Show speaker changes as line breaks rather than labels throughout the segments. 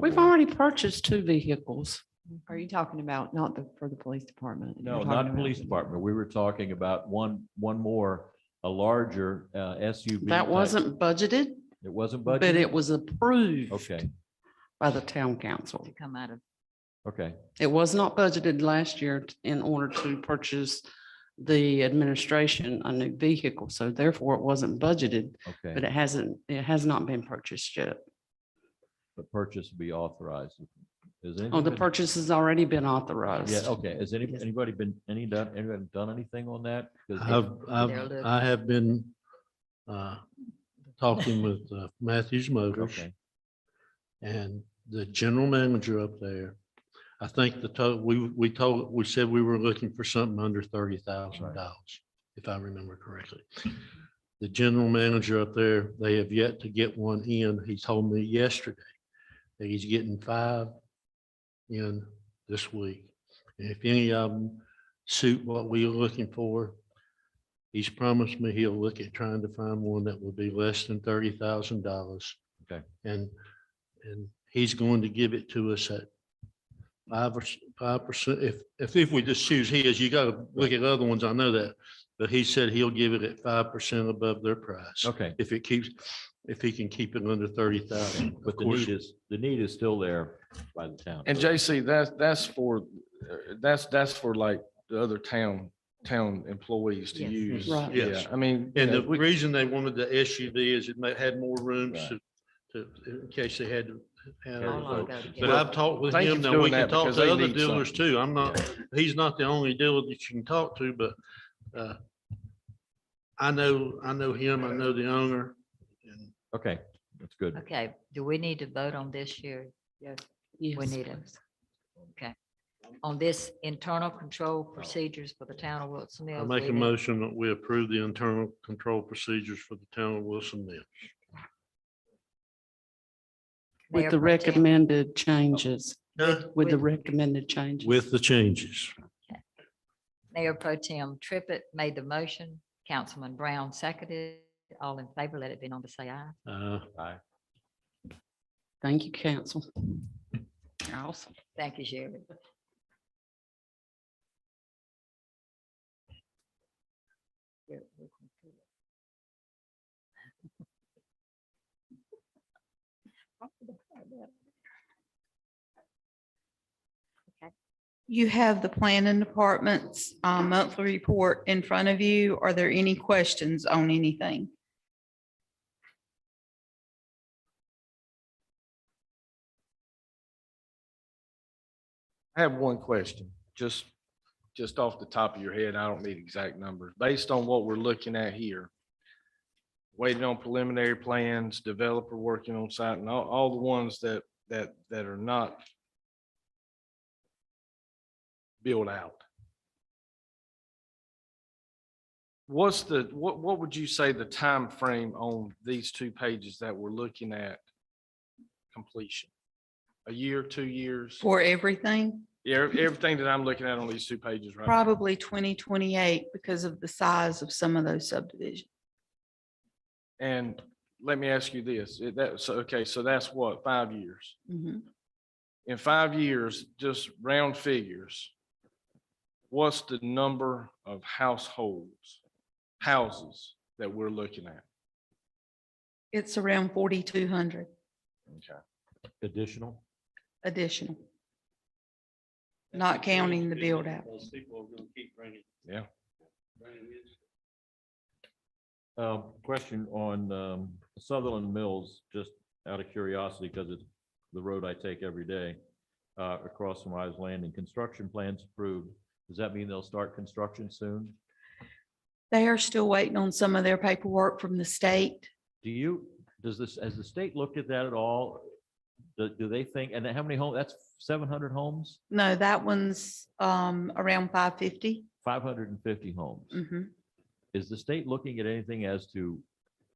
We've already purchased two vehicles.
Are you talking about not the, for the police department? You're
No,
talking
not
about-
police department. We were talking about one, one more, a larger uh, SUV.
That
type.
wasn't budgeted,
It wasn't
but
budgeted?
it was approved
Okay,
by the town council.
to come out of.
okay.
It was not budgeted last year t- in order to purchase the administration a new vehicle, so therefore it wasn't budgeted, but
Okay,
it hasn't, it has not been purchased yet.
the purchase be authorized. Is it?
Oh, the purchase has already been authorized.
Yeah, okay. Has any,
Yes.
anybody been, any done, anybody done anything on that? 'Cause
I've, I've,
look.
I have been, uh, talking with uh, Matthews Motors
Okay,
and the general manager up there. I think the total, we, we told, we said we were looking for something under thirty thousand dollars, if I remember correctly. The general manager up there, they have yet to get one in. He told me yesterday that he's getting five in this week. And if any of them suit what we are looking for, he's promised me he'll look at trying to find one that will be less than thirty thousand dollars.
Okay.
And, and he's going to give it to us at five or five percent. If, if, if we just choose his, you gotta look at other ones. I know that. But he said he'll give it at five percent above their price.
okay.
If it keeps, if he can keep it under thirty thousand.
But the need is, the need is still there by the town.
And JC, that's, that's for, uh, that's, that's for like the other town, town employees to
Yes.
use.
Right.
Yes.
Yeah, I mean.
And
yeah,
the
we-
reason they wanted the SUV is it may, had more rooms
Right.
to, to, in case they had to. have
Carry
a
the
How long
folks.
ago to
But
get-
I've talked with
Thank you
him.
for
Now,
doing
we can
that,
talk
because they
to other
need
dealers
something.
too. I'm not, he's not the only dealer that you can talk to, but, uh, I know, I know him. I know the owner. and
Okay, that's good.
Okay, do we need to vote on this here? Yes. We
Yes.
need it. Okay. On this internal control procedures for the town of Wilson
I
Mills.
make
we
a
need-
motion that we approve the internal control procedures for the town of Wilson Mills.
Mayor
With the
Pro Tem-
recommended changes,
No.
with the
With-
recommended changes.
With the changes.
Mayor Pro Tem Trippett made the motion, Councilman Brown seconded. All in favor, let it be known to say aye.
Uh,
Aye.
Thank you, council. Awesome.
Thank you, Sherry.
You have the planning department's uh, monthly report in front of you. Are there any questions on anything?
I have one question, just, just off the top of your head. I don't need exact numbers. Based on what we're looking at here, waiting on preliminary plans, developer working on site and all, all the ones that, that, that are not built out. What's the, what, what would you say the time frame on these two pages that we're looking at completion? A year, two years?
For everything,
Yeah, ev- everything that I'm looking at on these two pages right now.
probably twenty twenty-eight because of the size of some of those subdivisions.
And let me ask you this, it- that, so, okay, so that's what, five years?
Mhm.
In five years, just round figures, what's the number of households, houses that we're looking at?
It's around forty-two hundred
Okay.
Additional?
additional, not counting the build out.
Yeah.
Um, question on, um, Sutherland Mills, just out of curiosity, because it's the road I take every day, uh, across from I's Landing. Construction plans approved. Does that mean they'll start construction soon?
They are still waiting on some of their paperwork from the state.
Do you, does this, has the state looked at that at all? Do, do they think, and how many homes? that's seven hundred homes,
No, that one's um, around five fifty. Mm-hmm.
five hundred and fifty homes? Is the state looking at anything as to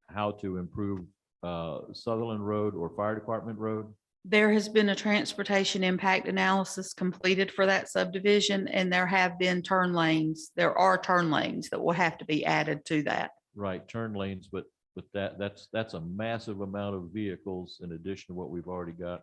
how to improve, uh, Sutherland Road or Fire Department Road?
There has been a transportation impact analysis completed for that subdivision, and there have been turn lanes. There are turn lanes that will have to be added to that.
right turn lanes, but, but that, that's, that's a massive amount of vehicles in addition to what we've already got.